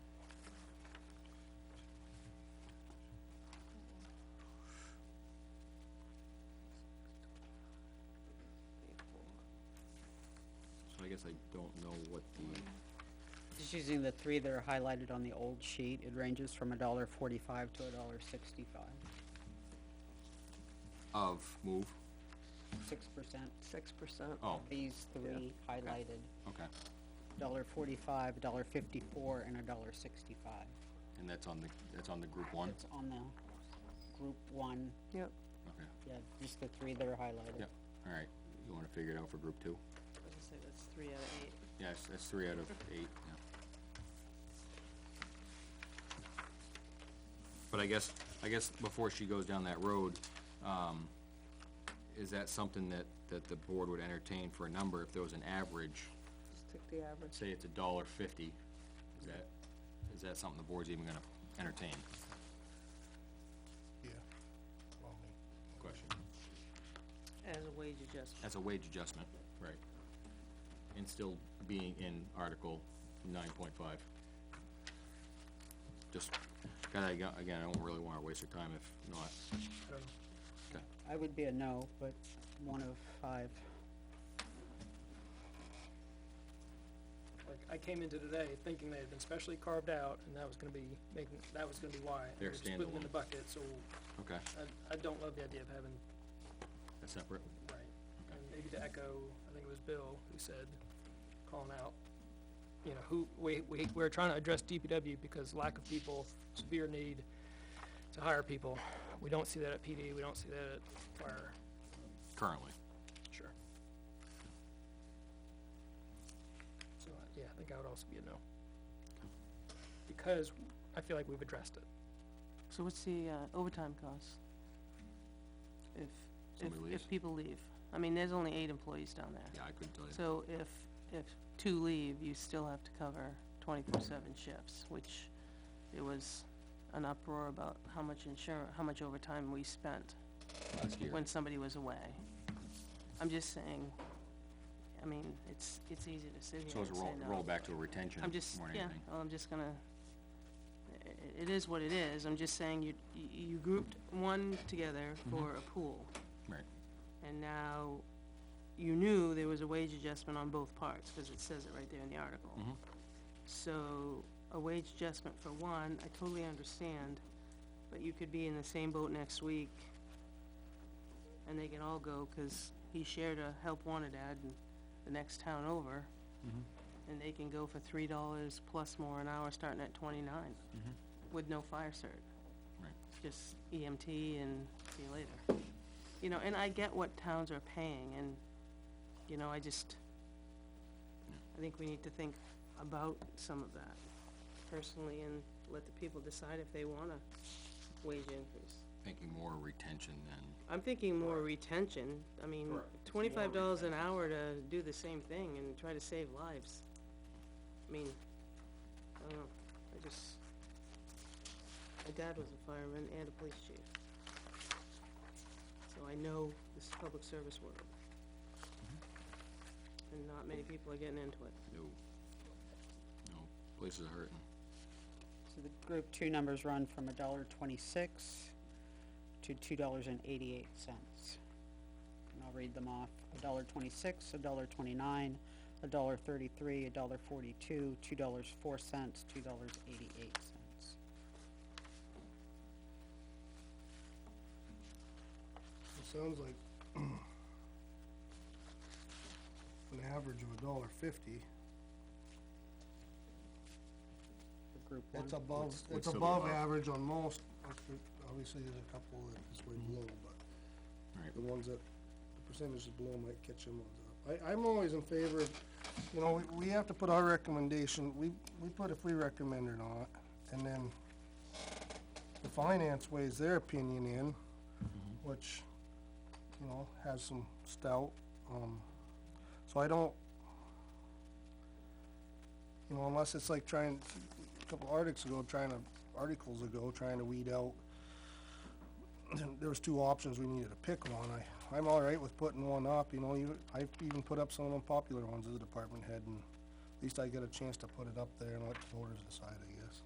guess I don't know what the, Just using the three that are highlighted on the old sheet, it ranges from a dollar forty-five to a dollar sixty-five, of move, six percent. six percent. oh, These three highlighted, okay, dollar forty-five, dollar fifty-four, and a dollar sixty-five. and that's on the, that's on the group one, It's on the group one, Yep, okay, yeah, just the three that are highlighted. yep, all right, you wanna figure it out for group two? I was gonna say, that's three out of eight. Yes, that's three out of eight, yeah. But I guess, I guess before she goes down that road, um, is that something that, that the board would entertain for a number if there was an average? just took the average. Say it's a dollar fifty, is that, is that something the board's even gonna entertain? Yeah. Well, I mean, Question. As a wage adjustment, That's a wage adjustment. Right. And still being in Article nine point five. Just, God, I got- again, I don't really wanna waste your time if not, I don't know. okay, I would be a no, but one of five. Like, I came into today thinking they had been specially carved out, and that was gonna be making, that was gonna be why. and They're we're just putting them in the standalone. bucket, so okay, I, I don't love the idea of having, that's separate, right. okay, And maybe to echo, I think it was Bill who said, calling out, you know, who, we, we, we're trying to address DPW because lack of people, severe need to hire people. We don't see that at PD, we don't see that at fire. currently. Sure. So, uh, yeah, I think I would also be a no. Because I feel like we've addressed it. so what's the uh, overtime cost? If, if, Somebody leaves? if people leave, I mean, there's only eight employees down there. Yeah, I couldn't tell you. So if, if two leave, you still have to cover twenty-four seven shifts, which it was an uproar about how much insurance, how much overtime we spent Last year, when somebody was away. I'm just saying, I mean, it's, it's easy to sit so here it's a and say roll, no. roll back to a retention I'm just, more than yeah, anything. well, I'm just gonna, i- i- it is what it is, I'm just saying you, you you grouped one together for a pool, Mm-hmm. Right, and now you knew there was a wage adjustment on both parts, cause it says it right there in the article. Mhm. So, a wage adjustment for one, I totally understand, but you could be in the same boat next week, and they can all go, cause he shared a help wanted ad in the next town over Mm-hmm. and they can go for three dollars plus more an hour starting at twenty-nine Mm-hmm. with no fire cert, right, just EMT and see you later. You know, and I get what towns are paying and, you know, I just, I think we need to think about some of that personally and let the people decide if they want a wage increase. thinking more retention than, I'm thinking more retention, I mean, Correct. It's more twenty-five dollars an hour to do the same thing and try to save lives. I mean, I don't know, I just, my dad was a fireman and a police chief. So I know this public service world. And not many people are getting into it. no, no, places are hurting. So the group two numbers run from a dollar twenty-six to two dollars and eighty-eight cents. And I'll read them off. A dollar twenty-six, a dollar twenty-nine, a dollar thirty-three, a dollar forty-two, two dollars four cents, two dollars eighty-eight cents. It sounds like an average of a dollar fifty, For group one. that's above, What's- what's that's the above low? average on most, Obvi- obviously there's a couple that is way below, but Right. the ones that, the percentages below might catch them ones up. I, I'm always in favor of, you know, we, we have to put our recommendation, we, we put if we recommend or not, and then the finance weighs their opinion in, which, you know, has some stout, um, so I don't, you know, unless it's like trying, a couple articles ago, trying to, articles ago, trying to weed out. There was two options, we needed to pick one, I, I'm all right with putting one up, you know, you, I've even put up some unpopular ones as a department head, and at least I get a chance to put it up there and let the voters decide, I guess.